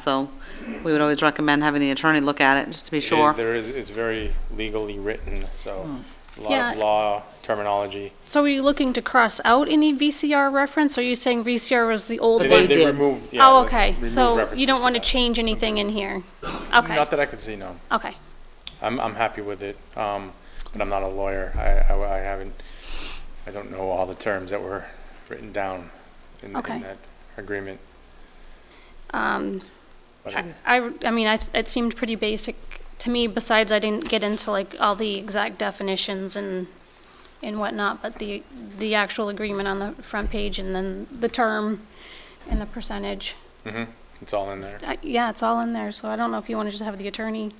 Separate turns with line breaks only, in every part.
So we would always recommend having the attorney look at it, just to be sure.
There is, it's very legally written, so a lot
Yeah.
of law terminology.
So are you looking to cross out any VCR reference? Or are you saying VCR was the old
They
one?
did.
removed, yeah.
Oh,
they
okay.
removed
So you
references
don't want to
that.
change anything in here? Okay,
Not that I could see, no.
okay.
I'm, I'm happy with it, um, but I'm not a lawyer. I, I, I haven't, I don't know all the terms that were written down in,
Okay.
in that agreement.
Um,
But
I, I I mean, I, it seemed pretty basic to me, besides I didn't get into like all the exact definitions and, and whatnot, but the, the actual agreement on the front page and then the term and the percentage.
mm-hmm, It's all in there.
I- Yeah, it's all in there, so I don't know if you want to just have the attorney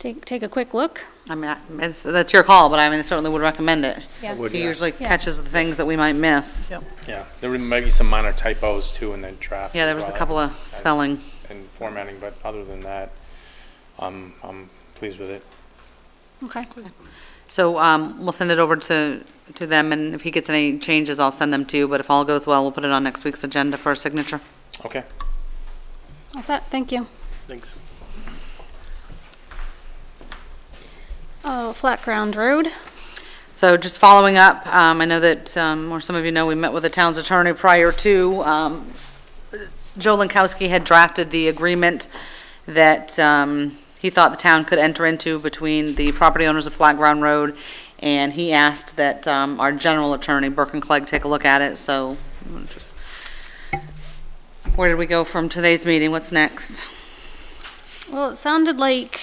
take, take a quick look.
I mean, I- it's- that's your call, but I mean, I certainly would recommend it.
Yeah.
would,
He
yeah.
usually
Yeah.
catches the things that we might miss.
Yeah, there were maybe some minor typos too in the draft.
Yeah,
as
there was a
well,
couple of spelling.
And formatting, but other than that, I'm, I'm pleased with it.
Okay.
So um, we'll send it over to, to them, and if he gets any changes, I'll send them to you. But if all goes well, we'll put it on next week's agenda for signature.
Okay.
All set, thank you.
Thanks.
Oh, Flat Ground Road.
So just following up, um, I know that, um, or some of you know, we met with the town's attorney prior to, um, Joe Lankowski had drafted the agreement that, um, he thought the town could enter into between the property owners of Flat Ground Road, and he asked that, um, our general attorney, Burke and Clegg, take a look at it, so, I'm just, where did we go from today's meeting? What's next?
Well, it sounded like,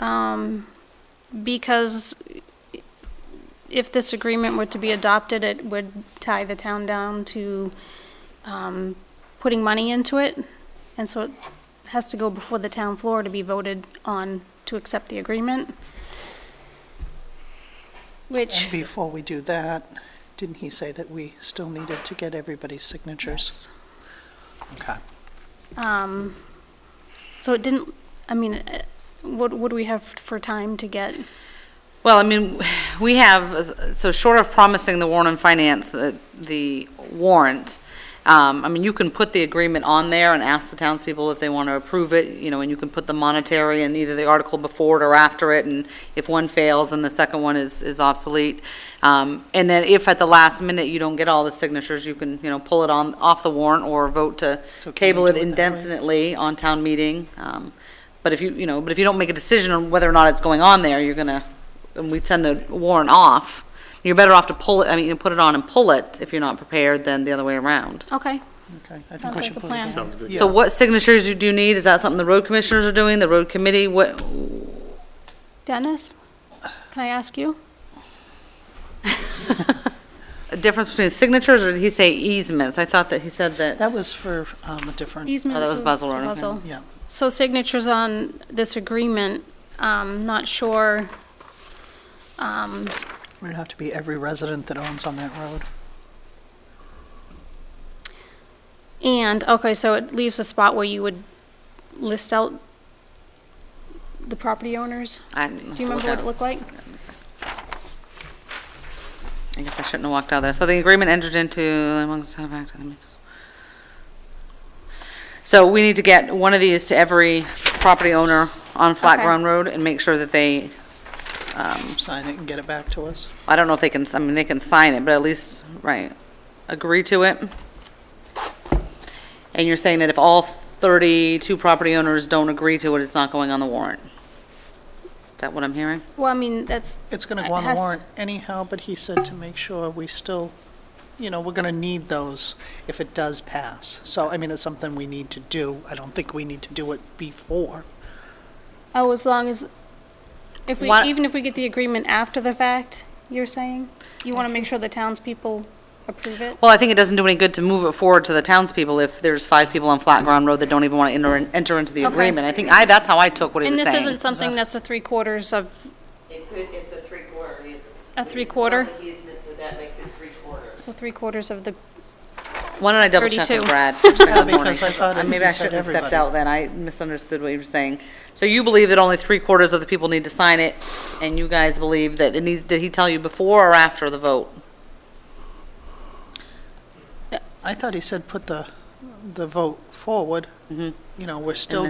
um, because if this agreement were to be adopted, it would tie the town down to, um, putting money into it. And so it has to go before the town floor to be voted on to accept the agreement. Which,
And before we do that, didn't he say that we still needed to get everybody's signatures? Okay.
um, so it didn't, I mean, eh, what, what do we have for time to get?
Well, I mean, we have, so short of promising the warrant and finance, the- the warrant, um, I mean, you can put the agreement on there and ask the townspeople if they want to approve it, you know, and you can put the monetary in either the article before it or after it, and if one fails, then the second one is is obsolete. Um, And then if at the last minute you don't get all the signatures, you can, you know, pull it on, off the warrant or vote to
So can we
table it
do it that way?
indefinitely on town meeting. Um, But if you, you know, but if you don't make a decision on whether or not it's going on there, you're going to and we'd send the warrant off, you're better off to pull it, I mean, you put it on and pull it if you're not prepared than the other way around.
Okay,
Okay, I
Sounds
think we
like
should
a
put it
plan.
down.
Sounds
good.
So what signatures you do need, is that something the road commissioners are doing, the road committee, what,
Dennis, can I ask you?
a difference between signatures, or did he say easements? I thought that he said that,
That was for um, a different,
Easements
was Buzzell Road, okay.
Buzzell.
yeah.
So signatures on this agreement, um, not sure, um,
It would have to be every resident that owns on that road.
and, okay, so it leaves a spot where you would list out the property owners?
I.
Do you remember what it looked like?
I guess I shouldn't have walked out there. So the agreement entered into amongst the town of Acton, I mean, it's- So we need to get one of these to every property owner on Flat
Okay.
Ground Road and make sure that they
Sign it and get it back to us.
I don't know if they can, I mean, they can sign it, but at least, right, agree to it. And you're saying that if all 32 property owners don't agree to it, it's not going on the warrant? Is that what I'm hearing?
Well, I mean, that's,
It's going
It
to go on the
has-
warrant anyhow, but he said to make sure we still, you know, we're going to need those if it does pass. So, I mean, it's something we need to do. I don't think we need to do it before.
oh, as long as, if we,
Why-
even if we get the agreement after the fact, you're saying? You want to make sure the townspeople approve it?
Well, I think it doesn't do any good to move it forward to the townspeople if there's five people on Flat Ground Road that don't even want to enter, enter into the
Okay.
agreement. I think I, that's how I took what he
And
was
this
saying.
isn't something that's a three quarters of,
It could, it's a three-quarter easement.
A three-quarter?
It's a public easement, so that makes it three-quarters.
so three quarters of the
Why don't I double check
32.
with Brad? first thing in the
Yeah, because
morning?
I thought
Uh,
it-
Maybe
you
I
said
shouldn't have stepped
everybody.
out then. I misunderstood what you were saying. So you believe that only three quarters of the people need to sign it, and you guys believe that it needs, did he tell you before or after the vote?
I thought he said put the, the vote forward. You know, we're still